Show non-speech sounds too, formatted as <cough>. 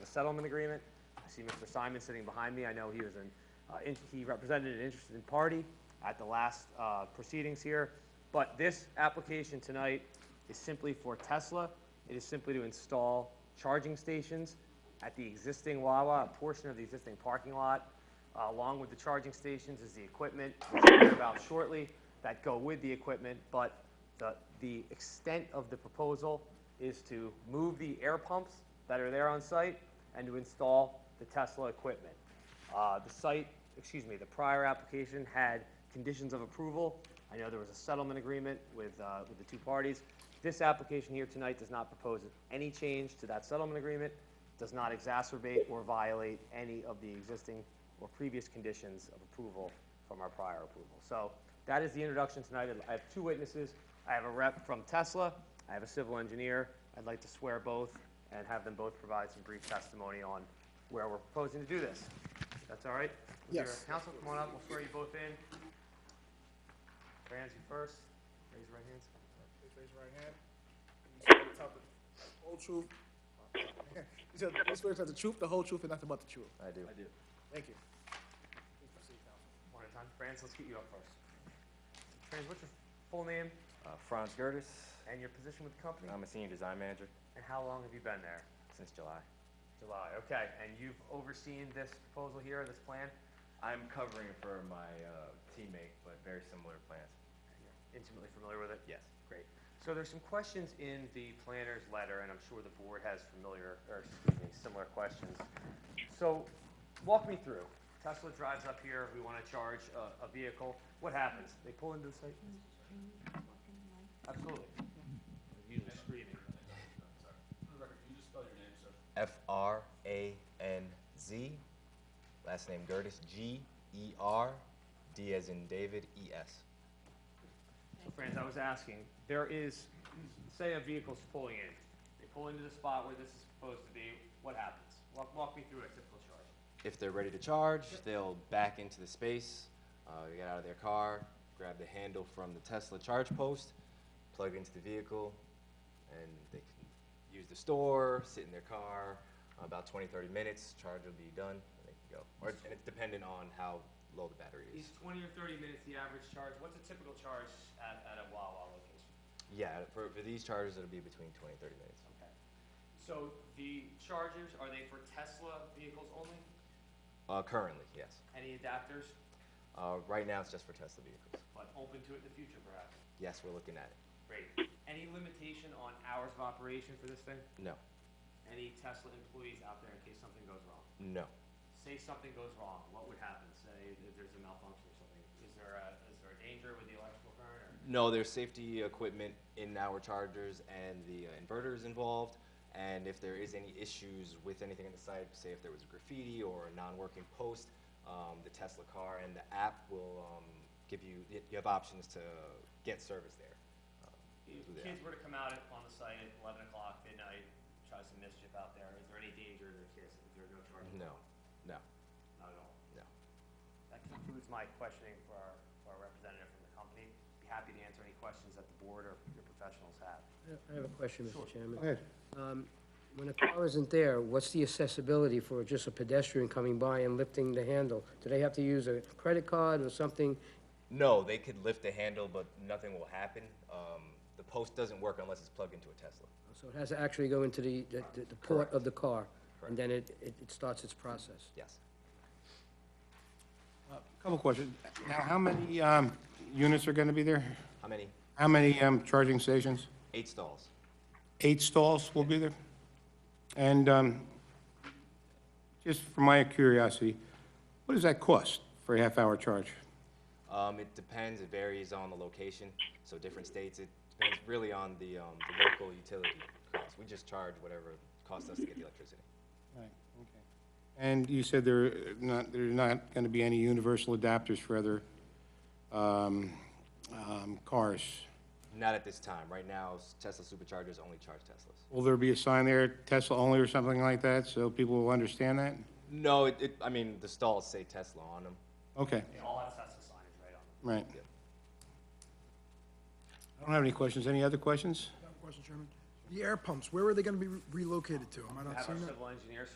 settlement agreement. I see Mr. Simon sitting behind me. I know he was an, uh, in- he represented an interested party at the last uh, proceedings here. But this application tonight is simply for Tesla. It is simply to install charging stations at the existing Wawa, a portion of the existing parking lot. Uh, Along with the charging stations is the equipment, which we'll hear about shortly, that go with the equipment. But the, the extent of the proposal is to move the air pumps that are there on site and to install the Tesla equipment. Uh, The site, excuse me, the prior application had conditions of approval. I know there was a settlement agreement with, uh, with the two parties. This application here tonight does not propose any change to that settlement agreement, does not exacerbate or violate any of the existing or previous conditions of approval from our prior approval. So that is the introduction tonight. I have two witnesses. I have a rep from Tesla. I have a civil engineer. I'd like to swear both and have them both provide some brief testimony on where we're proposing to do this. That's all right? With your Yes. Counsel, come on up. We'll swear you both in. Franz, you first. Raise your right hands. Please raise your right hand. You swear to tell the Whole truth. <laughs> You said, you swear to tell the truth, the whole truth, and nothing but the truth. I do. Thank you. Please proceed, Counsel. One at a time. Franz, let's get you up first. Franz, what's your full name Uh, Franz Gertis. and your position with the company? I'm a senior design manager And how long have you been there? since July. July, okay. And you've overseen this proposal here, this plan? I'm covering for my uh, teammate, but very similar plans. You're Intimately familiar with it? Yes. Great. So there's some questions in the planner's letter, and I'm sure the board has familiar, or excuse me, similar questions. So walk me through. Tesla drives up here, we want to charge a, a vehicle. What happens? They pull into the site? Absolutely. Usually screaming. F R A N Z. Last name Gertis. G E R D as in David. E S. So Franz, I was asking, there is, say a vehicle's pulling in. They pull into the spot where this is supposed to be, what happens? Walk, walk me through a typical charge. If they're ready to charge, they'll back into the space, uh, get out of their car, grab the handle from the Tesla charge post, plug into the vehicle, and they can use the store, sit in their car. About 20, 30 minutes, charge will be done, and they can go. Or, and it's dependent on how low the battery Is is. twenty or thirty minutes the average charge? What's a typical charge at, at a Wawa location? Yeah, for, for these chargers, it'll be between 20 30 minutes. Okay. So the chargers, are they for Tesla vehicles only? Uh, currently, yes. Any adapters, Uh, right now, it's just for Tesla vehicles. but open to it in the future perhaps? Yes, we're looking at it. Great. Any limitation on hours of operation for this thing? No, Any Tesla employees out there in case something goes wrong? no. Say something goes wrong, what would happen? Say if there's a malfunction or something, is there a, is there a danger with the electrical current or? No, there's safety equipment in our chargers and the uh, inverters involved. And if there is any issues with anything on the site, say if there was graffiti or a non-working post, um, the Tesla car and the app will um, give you, y- you have options to get service there. Um, If through the kids app. were to come out at- on the site at eleven o'clock midnight, try some mischief out there, is there any danger to the kids if there are no charges? No, no, Not at all. no. That concludes my questioning for our, for our representative from the company. Be happy to answer any questions that the board or your professionals have. I have a question, Mr. Chairman. Go ahead. Um, When a car isn't there, what's the accessibility for just a pedestrian coming by and lifting the handle? Do they have to use a credit card or something? No, they could lift the handle, but nothing will happen. Um, The post doesn't work unless it's plugged into a Tesla. So it has to actually go into the, the- the the port of the car? And then it, it it starts its process? Yes. Couple questions. Now, how many um, units are going to be there? How many? How many um, charging stations? Eight stalls. Eight stalls will be there? And um, just for my curiosity, what does that cost for a half-hour charge? Um, it depends, it varies on the location, so different states, it depends really on the, um, the local utility costs. We just charge whatever it costs us to get the electricity. Right, okay. And you said there are not, there are not going to be any universal adapters for other um, um, cars? Not at this time, right now, s- Tesla superchargers only charge Teslas. Will there be a sign there, Tesla only or something like that, so people will understand that? No, it, it, I mean, the stalls say Tesla on them. Okay. They all have Tesla signage right on them. Right. Yep. I don't have any questions. Any other questions? Question, Chairman. The air pumps, where are they gonna be relocated to? Am I not Have our seeing that? civil engineer